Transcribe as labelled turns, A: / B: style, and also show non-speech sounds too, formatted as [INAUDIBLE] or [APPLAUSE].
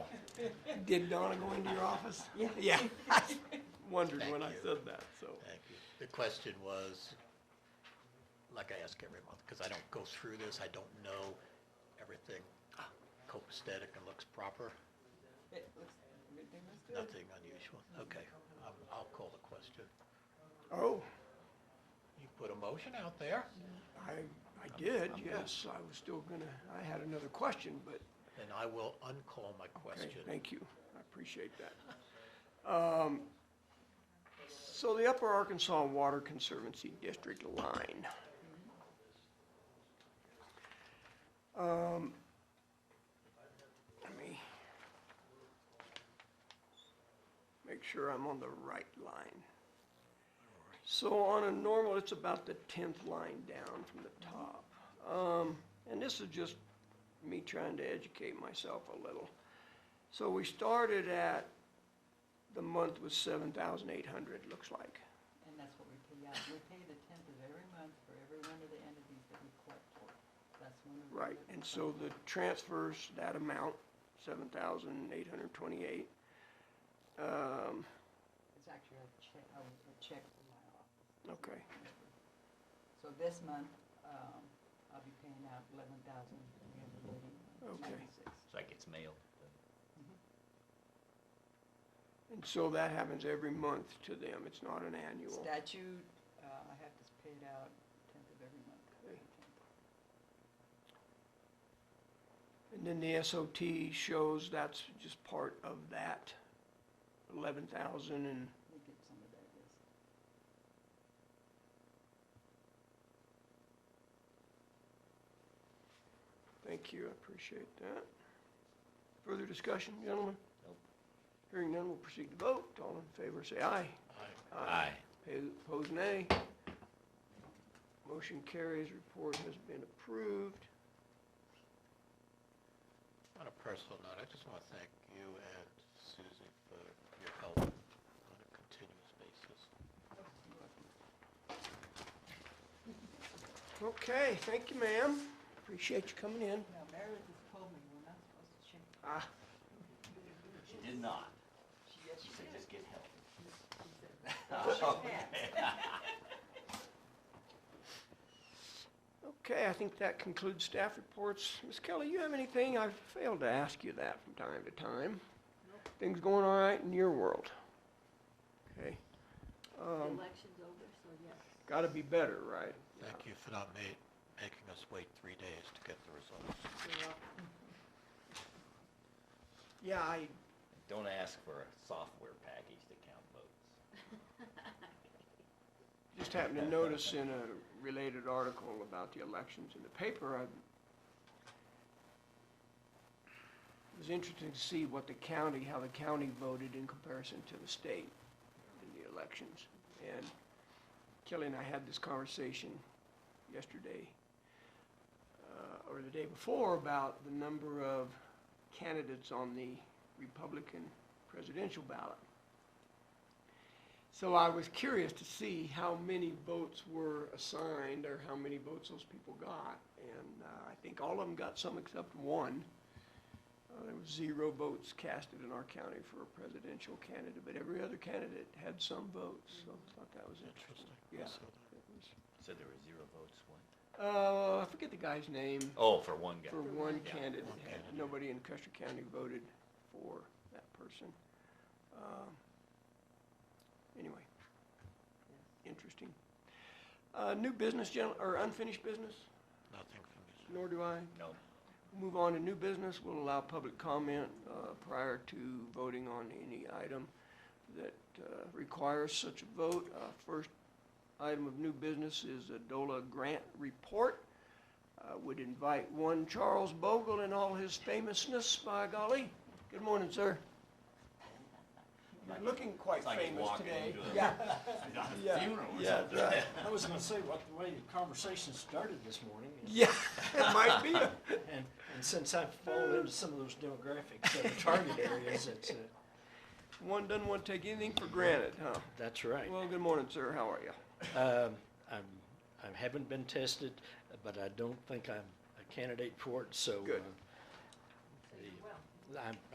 A: Did Donna go into your office?
B: Yeah.
A: [LAUGHS] Yeah. I Wondered when I
C: Thank you.
A: said that, so.
C: Thank you. The question was, like I ask every month, because I don't go through this, I don't know everything copacetic and looks proper,
B: It looks, everything looks good.
C: nothing unusual. Okay, I'll- I'll call the question.
A: Oh,
C: You put a motion out there,
A: I, I did, yes. I was still gonna, I had another question, but,
C: and I will uncall my
A: okay,
C: question.
A: thank you. I appreciate that. Um, so the Upper Arkansas Water Conservancy District line. Um, let me make sure I'm on the right line. So on a normal, it's about the tenth line down from the top. Um, and this is just me trying to educate myself a little. So we started at, the month was seven thousand eight hundred, looks like.
B: And that's what we pay out. We pay the tenth of every month for every one of the entities that we collect for. That's one of the.
A: Right, and so the transfers, that amount, seven thousand eight hundred twenty-eight. Um,
B: It's actually a check, a a check from my office.
A: okay,
B: So this month, um, I'll be paying out eleven thousand three hundred eighty
A: Okay.
B: ninety-six.
D: It's like it's mailed.
A: and so that happens every month to them, it's not an annual.
B: Statute, uh, I have to pay it out tenth of every month.
A: Okay. And then the SOT shows that's just part of that, eleven thousand and,
B: We get some of that, yes.
A: thank you, I appreciate that. Further discussion, gentlemen?
D: Nope.
A: Hearing none, we'll proceed to vote, all in favor, say aye.
C: I-
A: Opposed, nay. Motion carries, report has been approved.
C: On a personal note, I just want to thank you and Susie for your help on a continuous basis.
A: Okay, thank you, ma'am. Appreciate you coming in.
B: Now, Meredith has told me we're not supposed to check.
A: Ah,
D: She did not.
B: She, yes, she did.
D: get help.
B: She said,
C: [LAUGHS]
B: "Wash your
C: Oh.
B: hands."
A: okay, I think that concludes staff reports. Ms. Kelly, you have anything? I've failed to ask you that from time to time. Things going all right in your world? Okay, Um,
E: The election's over, so yes.
A: gotta be better, right?
C: Thank you for not ma- making us wait three days to get the results.
E: You're welcome.
A: Yeah, I,
D: Don't ask for a software package to count votes.
A: Just happened to notice in a related article about the elections in the paper, I it was interesting to see what the county, how the county voted in comparison to the state in the elections. And Kelly and I had this conversation yesterday, uh, or the day before, about the number of candidates on the Republican presidential ballot. So I was curious to see how many votes were assigned or how many votes those people got. And uh, I think all of them got some except one. Uh, There was zero votes casted in our county for a presidential candidate, but every other candidate had some votes, so I thought that was interesting.
C: Interesting.
A: Yeah.
C: So-
A: it was-
D: So there were zero votes, one?
A: Uh, I forget the guy's name,
D: Oh, for one guy.
A: for one
E: one. Yeah,
A: candidate.
C: one candidate.
A: Nobody in Custer County voted for that person. Um, Anyway, interesting. Uh, New business, gen- or unfinished business,
C: Nothing from you. sir.
A: nor do I.
D: No.
A: Move on to new business. We'll allow public comment uh, prior to voting on any item that uh, requires such a vote. Uh, First item of new business is a DOLA grant report. Uh, Would invite one Charles Bogle and all his famousness, by golly. Good morning, sir. You're looking quite
D: It's like he's
A: famous
D: walking
A: today.
D: into a- [LAUGHS]
A: Yeah, Yeah.
D: Funeral or
A: yeah,
D: something.
A: right. [LAUGHS]
F: I was gonna say, what, the way the conversation started this morning, and-
A: Yeah, it might be. a-
F: and, and since I've fallen into some of those demographics of the target areas, it's, uh,
A: One doesn't want to take anything for granted, huh?
F: that's right.
A: Well, good morning, sir. How are you?
F: Um, I'm, I haven't been tested, but I don't think I'm a candidate for it, so. uh,
A: Good.
F: the- I'm,